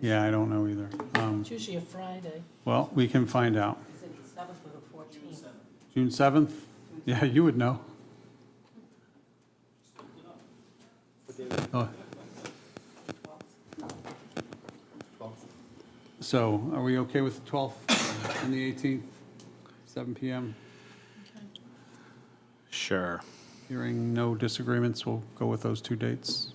Yeah, I don't know either. Um, It's usually a Friday. Well, we can find out. Is it the seventh or the fourteenth? June 7th? Yeah, you would know. Oh. So are we okay with the 12th and the 18th, 7 PM? Sure. Hearing no disagreements, we'll go with those two dates.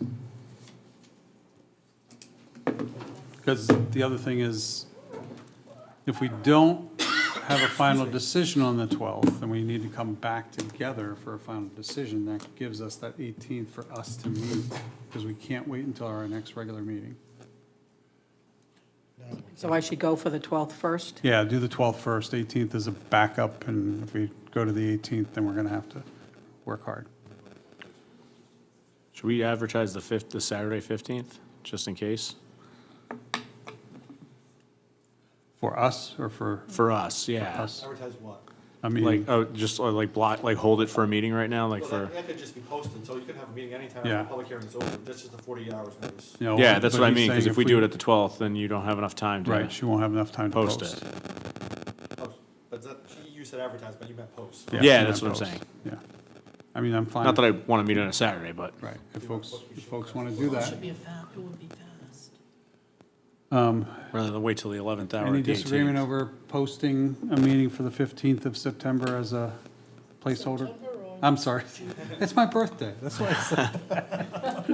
Because the other thing is, if we don't have a final decision on the 12th, and we need to come back together for a final decision, that gives us that 18th for us to meet, because we can't wait until our next regular meeting. So I should go for the 12th first? Yeah, do the 12th first, 18th is a backup, and if we go to the 18th, then we're going to have to work hard. Should we advertise the fifth, the Saturday 15th, just in case? For us or for For us, yeah. us? Advertise what? I mean, Like, oh, just uh, like block, like hold it for a meeting right now, like Well, for, that, that could just be posted, so you could have a meeting anytime Yeah. after the public hearing is over, that's just a forty hours notice. you know. yeah, that's but what I he's mean, because saying if we do it at the 12th, then you don't have enough time to Right, she won't have enough time to post post. it. Post. But that, you said advertise, but you meant post. Yeah, she that's meant what I'm post. Yeah. I mean, I'm fine. Not that I want to meet on a Saturday, but Right, if folks, if folks want to do that. Should be a fa, it would be fast. rather than wait till the 11th hour Any at the disagreement 18th. over posting a meeting for the 15th of September as a placeholder? I'm sorry, it's my birthday, that's why I said.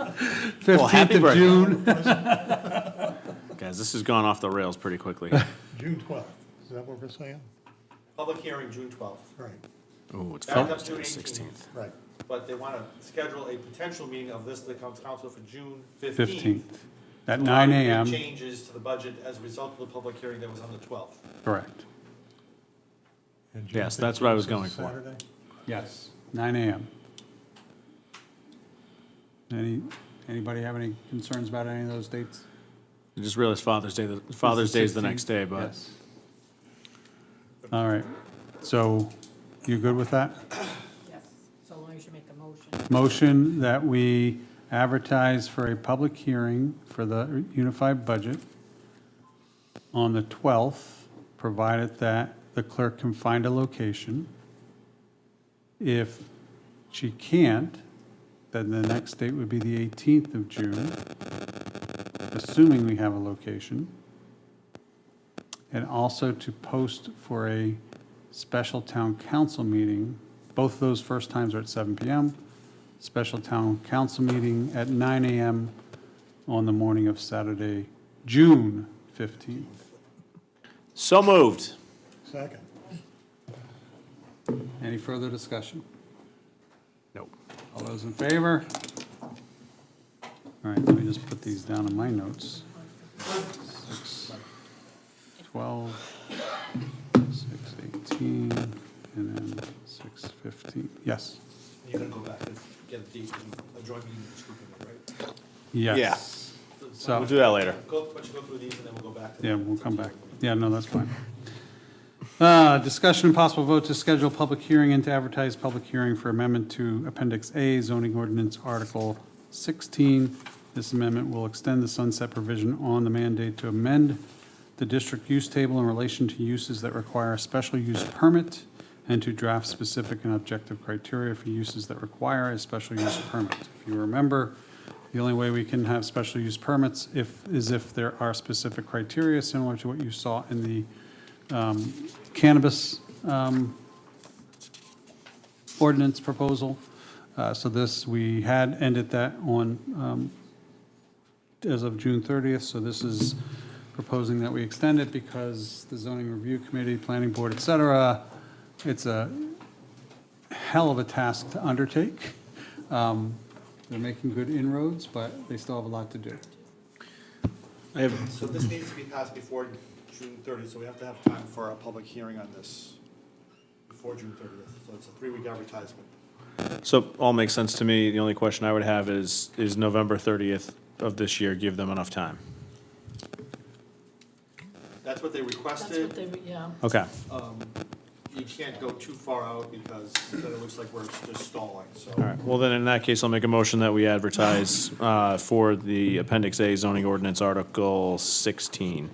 Well, 15th happy of birthday. June, Guys, this has gone off the rails pretty quickly. June twelfth, is that what we're saying? Public hearing, June twelfth, Right, Ooh, it's Back felt up to to the 18th. 16th. right. but they wanna schedule a potential meeting of this, to the coun- council for June fifteenth. 15th, at 9 AM, Changes to the budget as a result of the public hearing that was on the twelfth. correct. And June Yes, that's what I was 15th is going for. Saturday? Yes, 9 AM. Any, anybody have any concerns about any of those dates? I just realized Father's Day, the- Father's Day is the next day, but Yes. All right, so you good with that? Yes, so long as you make a motion. Motion that we advertise for a public hearing for the unified budget on the 12th, provided that the clerk can find a location. If she can't, then the next date would be the 18th of June, assuming we have a location. And also to post for a special town council meeting. Both of those first times are at 7 PM. Special town council meeting at 9 AM on the morning of Saturday, June 15th. so moved. Second, Any further discussion? Nope. All those in favor? All right, let me just put these down in my notes. Six, 12, 618, and then 615. Yes. You're gonna go back and get a date, and a joint meeting, with the school committee, right? Yes. We'll So, do that later. Go, why don't you go through these and then we'll go back to. yeah, the we'll come back. September meeting. Yeah, no, that's fine. Uh, Discussion and possible vote to schedule public hearing and to advertise public hearing for amendment to Appendix A zoning ordinance Article 16. This amendment will extend the sunset provision on the mandate to amend the district use table in relation to uses that require a special use permit and to draft specific and objective criteria for uses that require a special use permit. If you remember, the only way we can have special use permits if, is if there are specific criteria similar to what you saw in the cannabis um, ordinance proposal. Uh, So this, we had ended that on, um, as of June 30th, so this is proposing that we extend it because the zoning review committee, planning board, et cetera, it's a hell of a task to undertake. Um, They're making good inroads, but they still have a lot to do. I have, So this needs to be passed before June thirtieth, so we have to have time for a public hearing on this before June thirtieth, so it's a three-week advertisement. so all makes sense to me. The only question I would have is, is November 30th of this year give them enough time? That's what they That's what requested, they, yeah. Okay. um, you you can't go too far out because then it looks like we're just stalling, so. All right, well then, in that case, I'll make a motion that we advertise uh, for the Appendix A zoning ordinance Article 16.